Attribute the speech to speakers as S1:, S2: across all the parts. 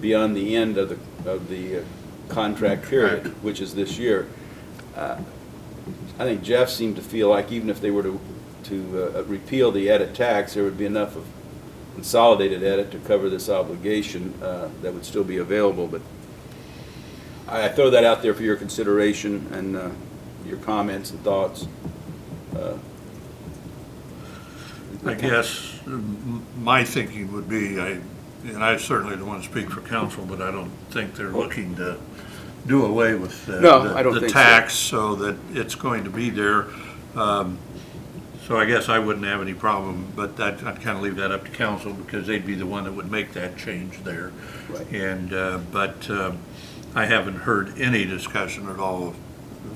S1: beyond the end of the, of the uh, contract period, which is this year. Uh, I think Jeff seemed to feel like even if they were to, to uh, repeal the edit tax, there would be enough of consolidated edit to cover this obligation uh, that would still be available, but I I throw that out there for your consideration and uh, your comments and thoughts. Uh,
S2: I guess m- my thinking would be, I, and I certainly don't want to speak for council, but I don't think they're looking to do away with the.
S1: No, I don't
S2: the
S1: think so.
S2: tax, so that it's going to be there. Um, So I guess I wouldn't have any problem, but I'd, I'd kind of leave that up to council, because they'd be the one that would make that change there.
S1: Right.
S2: And, uh, but um, I haven't heard any discussion at all of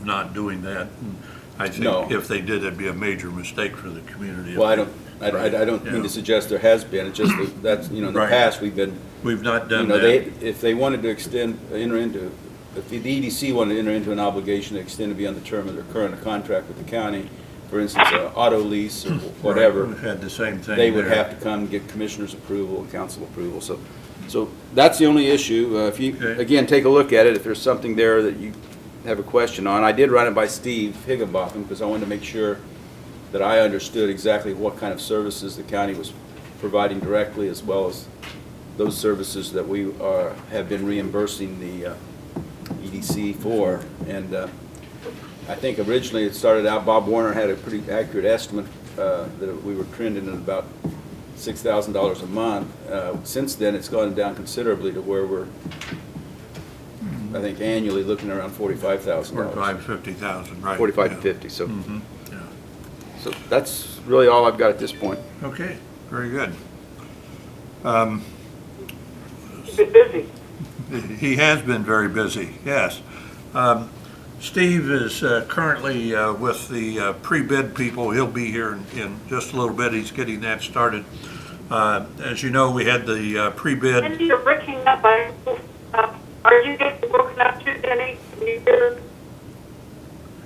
S2: not doing that. And I
S1: No.
S2: think if they did, it'd be a major mistake for the community.
S1: Well, I don't, I- I I don't mean
S2: Yeah.
S1: to suggest there has been, it's just that, that's, you know, in the
S2: Right.
S1: past, we've been
S2: We've not
S1: You
S2: done
S1: know, they,
S2: that.
S1: if they wanted to extend, enter into, if the EDC wanted to enter into an obligation to extend beyond the term of their current contract with the county, for instance, an auto lease or
S2: We've
S1: whatever,
S2: had the same thing
S1: they would
S2: there.
S1: have to come and get commissioner's approval and council approval, so, so that's the only issue. Uh, If you,
S2: Okay.
S1: again, take a look at it, if there's something there that you have a question on. I did run it by Steve Higginbotham, because I wanted to make sure that I understood exactly what kind of services the county was providing directly, as well as those services that we are, have been reimbursing the uh, EDC for. And uh, I think originally it started out, Bob Warner had a pretty accurate estimate uh, that we were trending at about $6,000 a month. Uh, Since then, it's gone down considerably to where we're, I think annually, looking around $45,000.
S2: Forty-five, fifty thousand, right.
S1: 45 to
S2: yeah.
S1: 50, so,
S2: Mhm, yeah.
S1: so that's really all I've got at this point.
S2: Okay, very good.
S3: Keep it busy.
S2: He has been very busy, yes. Um, Steve is uh, currently uh, with the uh, pre-bid people. He'll be here in- in just a little bit. He's getting that started. Uh, As you know, we had the uh, pre-bid
S3: Cindy, you're breaking up. I, uh, are you getting broken up too, Denny? Can you hear?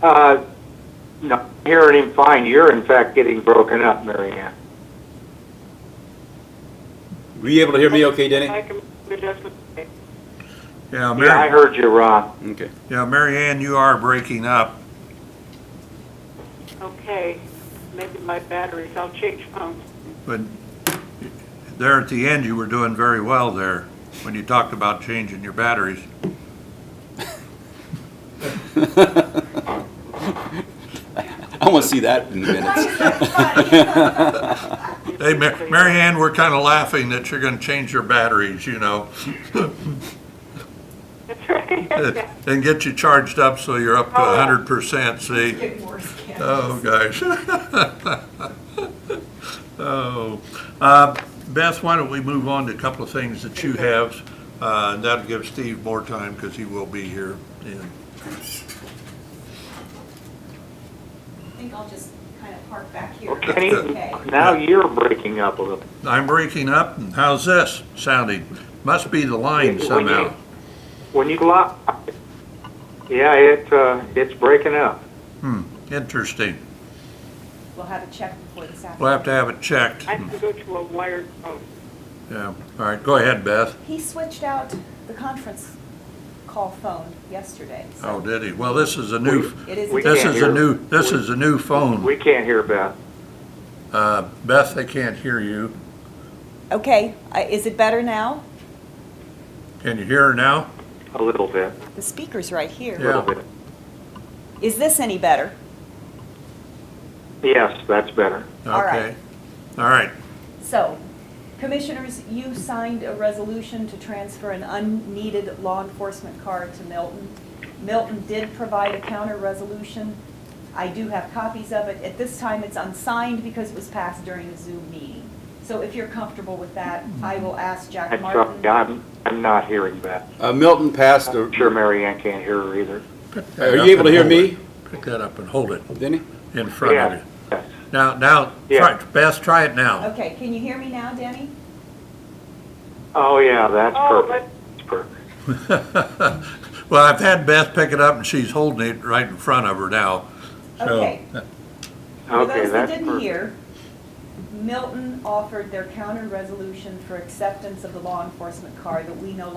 S4: Uh, No, I'm hearing him fine. You're in fact getting broken up, Mary Ann.
S1: Were you able to hear me okay, Denny?
S3: I can adjustment.
S2: Yeah,
S4: Yeah, I
S2: Mary,
S4: heard you, Ron.
S1: Okay.
S2: yeah, Mary Ann, you are breaking up.
S3: Okay, maybe my batteries, I'll change phones.
S2: But there at the end, you were doing very well there when you talked about changing your batteries.
S1: I want to see that in the minutes.
S2: Hey, Ma- Mary Ann, we're kind of laughing that you're going to change your batteries, you know,
S3: That's right.
S2: and get you charged up so you're up to
S3: Oh.
S2: 100%, see?
S5: Getting worse, yeah.
S2: Oh, gosh. Oh. Uh, Beth, why don't we move on to a couple of things that you have? uh, and That'll give Steve more time because he will be here. And
S5: I think I'll just kind of park back here.
S4: Well, Kenny,
S5: Okay.
S4: now you're breaking up a little.
S2: I'm breaking up, and how's this sounding? Must be the line
S4: When you-
S2: somehow.
S4: When you lock, yeah, it, uh, it's breaking up.
S2: Interesting.
S5: We'll have a check before this happens.
S2: We'll have to have it checked.
S3: I can go to a wired phone.
S2: Yeah, all right, go ahead, Beth.
S5: He switched out the conference call phone yesterday. so
S2: Oh, did he? Well, this is a new,
S5: It is.
S4: We
S2: this
S4: can't
S2: is a
S4: hear.
S2: new, this is a new phone.
S4: We can't hear Beth.
S2: Uh, Beth, I can't hear you.
S5: Okay, uh, is it better now?
S2: Can you hear her now?
S4: A little bit,
S5: The speaker's right
S4: a
S5: here.
S4: little
S2: Yeah.
S4: bit.
S5: Is this any better?
S4: Yes, that's better.
S5: All right.
S2: Okay. All right,
S5: So, commissioners, you signed a resolution to transfer an unneeded law enforcement car to Milton. Milton did provide a counter resolution. I do have copies of it. At this time, it's unsigned because it was passed during a Zoom meeting. So if you're comfortable with that, I will ask Jack
S4: That's,
S5: Martin.
S4: I'm, I'm not hearing Beth.
S1: Uh, Milton passed, a-
S4: I'm sure Mary Ann can't hear her either.
S2: pick that
S1: are
S2: up
S1: you able to
S2: and
S1: hear
S2: hold
S1: me,
S2: it. Pick that up and hold it
S1: Denny?
S2: in front of
S4: Yeah,
S2: you.
S4: yes.
S2: Now, now, try,
S4: Yeah.
S2: Beth, try it now.
S5: Okay, can you hear me now, Denny?
S4: Oh, yeah, that's
S3: Oh,
S4: perfect. That's perfect.
S2: Well, I've had Beth pick it up and she's holding it right in front of her now. So-
S5: Okay. For
S4: Okay,
S5: those that
S4: that's
S5: didn't
S4: perfect.
S5: hear, Milton offered their counter resolution for acceptance of the law enforcement car that we no